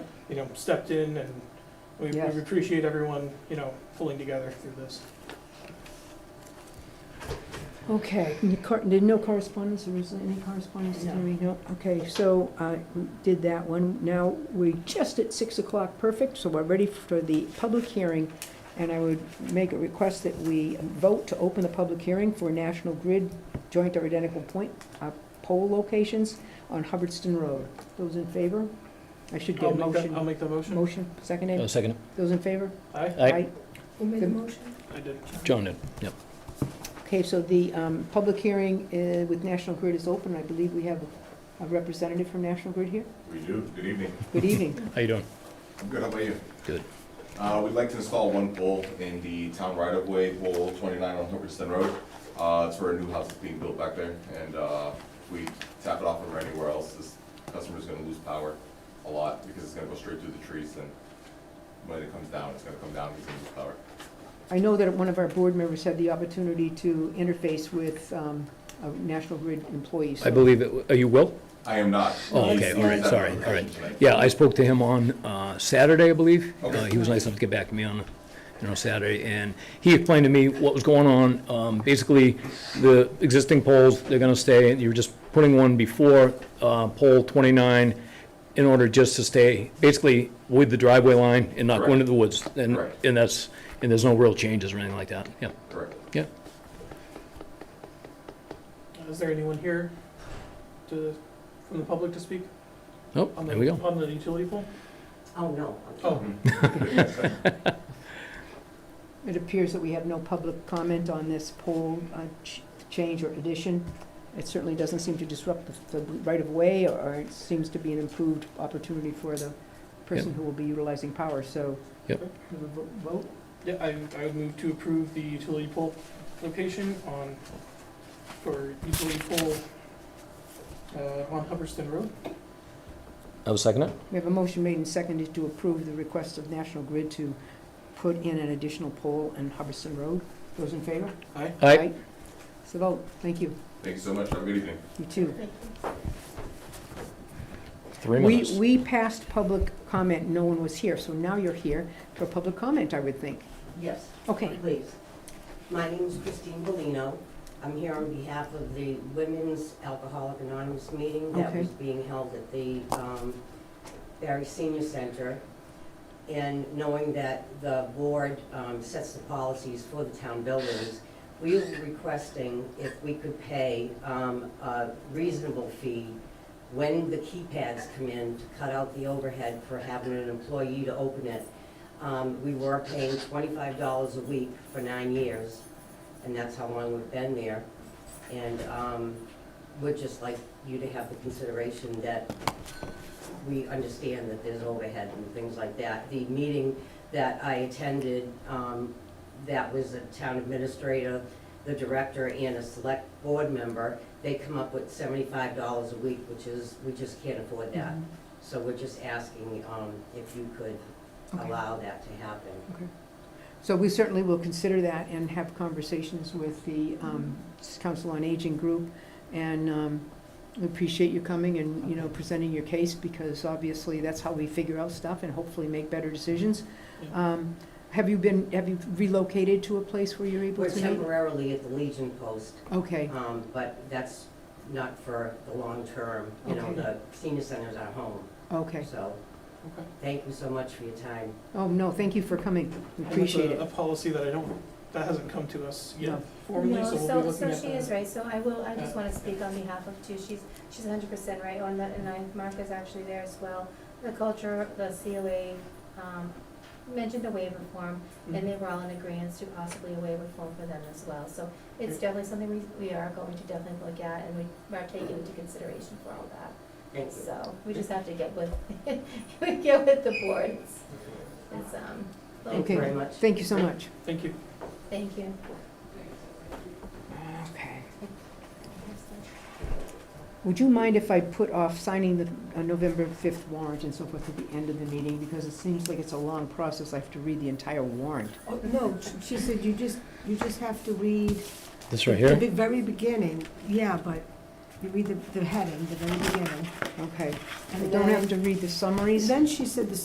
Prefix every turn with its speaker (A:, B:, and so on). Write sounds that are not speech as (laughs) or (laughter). A: you know, stepped in and we we
B: Yes.
A: appreciate everyone, you know, pulling together through this.
B: Okay, and the cor- did no correspondence, or was there any correspondence?
C: No.
B: Terry? No, okay, so I did that one. Now, we're just at six o'clock, perfect, so we're ready for the public hearing. And I would make a request that we vote to open the public hearing for National Grid joint or identical point uh, pole locations on Hubbardston Road. Those in favor? I should get
A: I'll
B: a
A: make that, I'll
B: motion.
A: make the motion.
B: Motion, seconded.
D: Oh, second.
B: Those in favor?
A: Aye,
D: Aye.
C: Who made the
B: Good.
C: motion?
A: I did.
D: Joan did.
B: Okay, so the um, public hearing uh, with National Grid is open. I believe we have a representative from National Grid here.
E: We do. Good evening.
B: Good evening.
D: How you doing?
E: I'm good. How about you?
D: Good.
E: Uh, we'd like to install one pole in the town right of way, pole twenty-nine on Hubbardston Road. Uh, it's for a new house that's being built back there, and, uh, if we tap it off over anywhere else, this customer's gonna lose power a lot, because it's gonna go straight through the trees, and when it comes down, it's gonna come down, he's gonna lose power.
B: I know that one of our board members had the opportunity to interface with um, a National Grid employees.
D: I believe, it. are you Will?
E: I am not.
D: Oh,
E: He's-
D: okay, all right,
E: he's at the
D: sorry,
E: location
D: all right.
E: tonight.
D: Yeah, I spoke to him on uh, Saturday, I believe.
E: Okay.
D: Uh, He was nice enough to get back to me on, you know, Saturday, and he explained to me what was going on. Um, Basically, the existing poles, they're gonna stay, and you're just putting one before uh, pole 29 in order just to stay, basically, with the driveway line and not go
E: Correct.
D: into the woods. And,
E: Correct.
D: and that's, and there's no real changes or anything like that, yeah.
E: Correct.
A: Is there anyone here to, from the public to speak?
D: Nope,
A: on the-
D: there we go.
A: On the utility pole?
C: Oh, no.
A: Oh,
B: It appears that we have no public comment on this poll uh, ch- change or addition. It certainly doesn't seem to disrupt the- the right-of-way, or it seems to be an improved opportunity for the person who will be utilizing power, so.
D: Yep.
B: we would vo- Vote?
A: yeah, I, I would move to approve the utility pole location on, for utility pole, uh, on Hubbardston Road.
D: I was second it?
B: We have a motion made and seconded to approve the request of National Grid to put in an additional pole in Hubbardston Road. Those in favor?
A: Aye.
D: Aye,
B: It's a vote. Thank you.
E: Thank you so much. Have a good evening.
B: You too.
D: three minutes.
B: We, we passed public comment, no one was here, so now you're here for public comment, I would think.
C: Yes,
B: Okay,
C: please. My name is Christine Bellino. I'm here on behalf of the Women's Alcoholic Anonymous meeting that
B: Okay.
C: was being held at the um, Barry Senior Center. And knowing that the board um, sets the policies for the town buildings, we were requesting if we could pay um, a reasonable fee when the keypads come in to cut out the overhead for having an employee to open it. Um, we were paying twenty-five dollars a week for nine years, and that's how long we've been there. And, um, we'd just like you to have the consideration that we understand that there's overhead and things like that. The meeting that I attended, um, that was a town administrator, the director, and a select board member, they come up with seventy-five dollars a week, which is, we just can't afford that.
B: Mm-hmm.
C: So we're just asking, um, if you could
B: Okay.
C: allow that to happen.
B: so we certainly will consider that and have conversations with the um, Council on Aging Group. And um, we appreciate you coming and, you know, presenting your case, because obviously that's how we figure out stuff and hopefully make better decisions. Um, Have you been, have you relocated to a place where you're able
C: We're
B: to meet?
C: temporarily at the Legion Post,
B: Okay,
C: um, but that's not for the long term. You know,
B: Okay.
C: the senior center's our home,
B: okay.
C: so
A: Okay.
C: thank you so much for your time.
B: Oh, no, thank you for coming. We
A: And that's
B: Appreciate
A: a-
B: it.
A: A policy that I don't, that hasn't come to us
B: No.
A: yet formally,
F: No,
A: so we'll be
F: so,
A: looking
F: so
A: at
F: she is
A: that.
F: right, so I will, I just wanna speak on behalf of two, she's, she's hundred percent right on that, and I, Martha's actually there as well. The culture, the COA, um, mentioned a waiver form,
A: Mm-hmm.
F: and they were all in agreeance to possibly a waiver form for them as well, so it's definitely something we, we are going to definitely look at, and we are taking into consideration for all that.
C: Thank you.
F: So, we just have to get with, (laughs) we get with the board, it's, it's, um,
C: Thank you very much.
B: Thank you so much.
A: Thank you.
F: thank you.
B: Okay. Would you mind if I put off signing the uh, November 5th warrant and so forth at the end of the meeting? Because it seems like it's a long process. I have to read the entire warrant.
G: Oh, No, she said you just, you just have to read
D: This right
G: the
D: here?
G: be- very beginning, yeah, but you read the, the heading, the very beginning.
B: Okay. I
G: and
B: don't have
G: then-
B: to read the summaries?
G: Then she said the